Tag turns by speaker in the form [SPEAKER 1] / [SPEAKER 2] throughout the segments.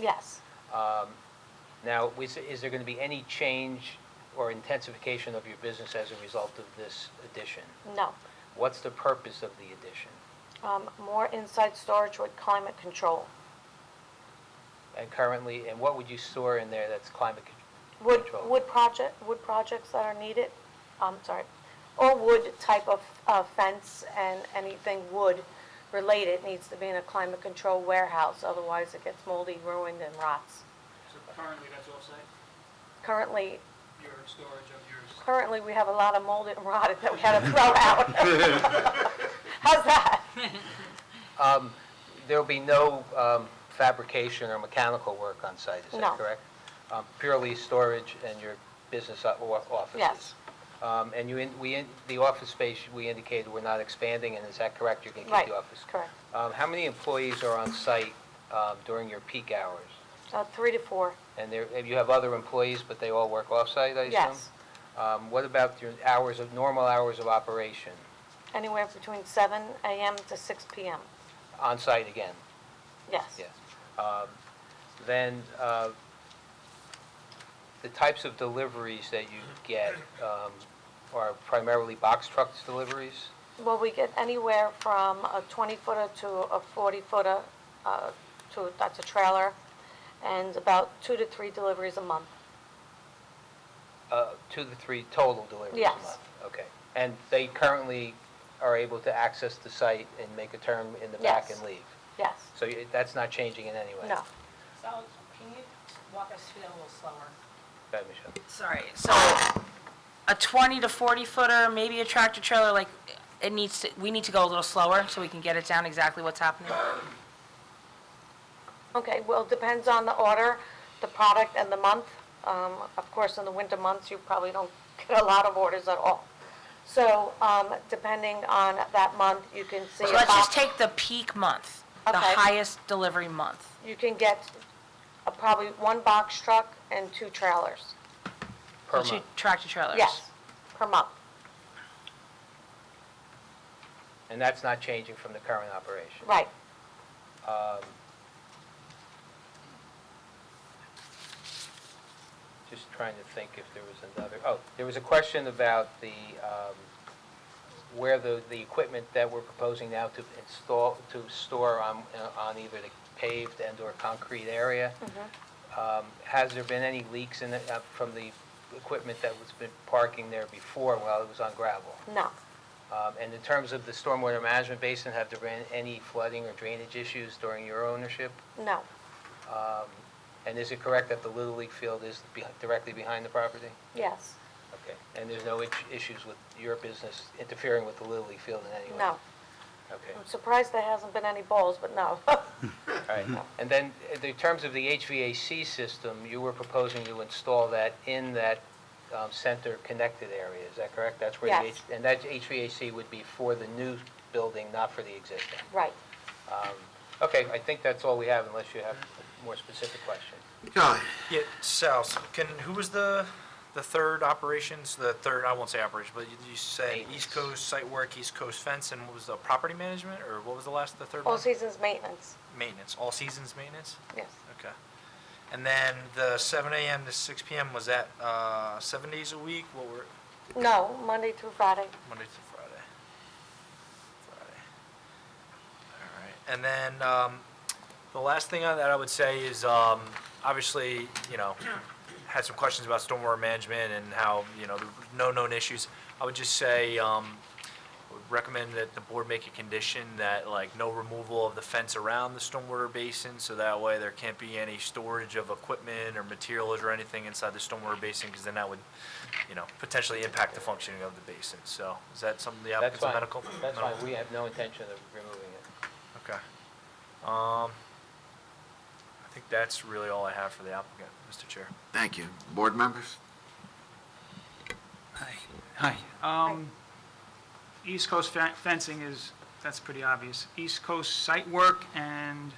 [SPEAKER 1] Yes.
[SPEAKER 2] Um, Now, is, is there going to be any change or intensification of your business as a result of this addition?
[SPEAKER 1] No.
[SPEAKER 2] What's the purpose of the addition?
[SPEAKER 1] Um, More inside storage with climate control.
[SPEAKER 2] And currently, and what would you store in there that's climate con-
[SPEAKER 1] Wood,
[SPEAKER 2] controlled?
[SPEAKER 1] wood project, wood projects that are needed, I'm sorry, or wood type of uh, fence and anything wood related needs to be in a climate control warehouse, otherwise it gets moldy, ruined, and rots.
[SPEAKER 3] So currently, that's offsite,
[SPEAKER 1] Currently,
[SPEAKER 3] your storage of yours?
[SPEAKER 1] currently, we have a lot of molded and rotted that we had to throw out. How's that?
[SPEAKER 2] Um, There'll be no um, fabrication or mechanical work on site, is
[SPEAKER 1] No.
[SPEAKER 2] that correct? Um, Purely storage and your business o- o- offices?
[SPEAKER 1] Yes.
[SPEAKER 2] Um, And you, in- we, in- the office space, we indicated we're not expanding, and is that correct? You're going to
[SPEAKER 1] Right,
[SPEAKER 2] keep the office?
[SPEAKER 1] correct.
[SPEAKER 2] Um, How many employees are on site um, during your peak hours?
[SPEAKER 1] Uh, Three to four,
[SPEAKER 2] And there, and you have other employees, but they all work off-site, I assume?
[SPEAKER 1] yes.
[SPEAKER 2] Um, What about your hours of, normal hours of operation,
[SPEAKER 1] Anywhere between seven AM to six PM,
[SPEAKER 2] on-site again?
[SPEAKER 1] yes.
[SPEAKER 2] Yes. Um, Then, uh, the types of deliveries that you get um, are primarily box trucks deliveries?
[SPEAKER 1] Well, we get anywhere from a 20-footer to a 40-footer, uh, to, that's a trailer, and about two to three deliveries a month.
[SPEAKER 2] Uh, Two to three total deliveries a
[SPEAKER 1] Yes.
[SPEAKER 2] month? Okay. And they currently are able to access the site and make a turn in the back
[SPEAKER 1] Yes.
[SPEAKER 2] and leave?
[SPEAKER 1] Yes,
[SPEAKER 2] So you- that's not changing in any way?
[SPEAKER 1] no,
[SPEAKER 4] So can you walk us through that a little slower?
[SPEAKER 2] Go ahead, Michelle.
[SPEAKER 4] Sorry, so a 20 to 40 footer, maybe a tractor trailer, like, it needs to, we need to go a little slower so we can get it down exactly what's happening.
[SPEAKER 1] okay, well, depends on the order, the product, and the month. Um, Of course, in the winter months, you probably don't get a lot of orders at all. So um, depending on that month, you can see
[SPEAKER 4] So
[SPEAKER 1] a
[SPEAKER 4] let's
[SPEAKER 1] box,
[SPEAKER 4] just take the peak month, the
[SPEAKER 1] Okay.
[SPEAKER 4] highest delivery month.
[SPEAKER 1] you can get a- probably one box truck and two trailers.
[SPEAKER 2] Per
[SPEAKER 4] Two
[SPEAKER 2] month.
[SPEAKER 4] Tractor trailers.
[SPEAKER 1] Yes, per month,
[SPEAKER 2] And that's not changing from the current operation?
[SPEAKER 1] right.
[SPEAKER 2] Um, Just trying to think if there was another, oh, there was a question about the, um, where the, the equipment that we're proposing now to install, to store on, uh, on either the paved and/or concrete area. Um, Has there been any leaks in, it, uh, from the equipment that was been parking there before while it was on gravel?
[SPEAKER 1] No,
[SPEAKER 2] Um, And in terms of the stormwater management basin, have there been any flooding or drainage issues during your ownership?
[SPEAKER 1] no,
[SPEAKER 2] Um, And is it correct that the Little League field is be- directly behind the property?
[SPEAKER 1] yes,
[SPEAKER 2] Okay. And there's no itch- issues with your business interfering with the Little League field in any way?
[SPEAKER 1] no.
[SPEAKER 2] Okay,
[SPEAKER 1] I'm surprised there hasn't been any balls, but no.
[SPEAKER 2] all right. And then, in the terms of the HVAC system, you were proposing to install that in that um, center-connected area, is that correct? That's where the
[SPEAKER 1] Yes.
[SPEAKER 2] H- And that HVAC would be for the new building, not for the existing?
[SPEAKER 1] Right.
[SPEAKER 2] Um, Okay, I think that's all we have unless you have a more specific question.
[SPEAKER 5] Guy,
[SPEAKER 6] Yeah, Sal, so can, who was the, the third operations, the third, I won't say operation, but you- you said
[SPEAKER 2] Maintenance.
[SPEAKER 6] East Coast site work, East Coast fence, and what was the property management, or what was the last, the third
[SPEAKER 1] All
[SPEAKER 6] one?
[SPEAKER 1] seasons maintenance,
[SPEAKER 6] Maintenance, all seasons maintenance?
[SPEAKER 1] yes.
[SPEAKER 6] Okay. And then the seven AM to six PM, was that, uh, seven days a week? What were,
[SPEAKER 1] No, Monday through Friday.
[SPEAKER 6] Monday to Friday. Friday. All right. And then um, the last thing on that I would say is um, obviously, you know, had some questions about stormwater management and how, you know, there were no known issues. I would just say, um, would recommend that the board make a condition that like no removal of the fence around the stormwater basin, so that way there can't be any storage of equipment or materials or anything inside the stormwater basin, because then that would, you know, potentially impact the functioning of the basin. So is that something the
[SPEAKER 2] That's
[SPEAKER 6] applicant's
[SPEAKER 2] fine.
[SPEAKER 6] medical?
[SPEAKER 2] That's
[SPEAKER 6] No?
[SPEAKER 2] fine, we have no intention of removing it.
[SPEAKER 6] Okay. Um, I think that's really all I have for the applicant, Mr. Chair.
[SPEAKER 5] thank you. Board members?
[SPEAKER 7] Hi. Um, East Coast fe- fencing is, that's pretty obvious. East Coast site work and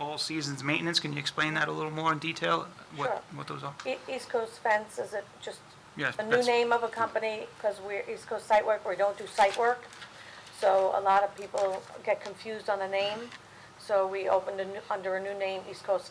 [SPEAKER 7] all seasons maintenance, can you explain that a little more in detail? What,
[SPEAKER 1] Sure.
[SPEAKER 7] what those are?
[SPEAKER 1] E- East Coast Fence is it just
[SPEAKER 7] Yes,
[SPEAKER 1] a new
[SPEAKER 7] that's-
[SPEAKER 1] name of a company because we're East Coast Site Work, we don't do site work. So a lot of people get confused on the name. So we opened a new, under a new name, East Coast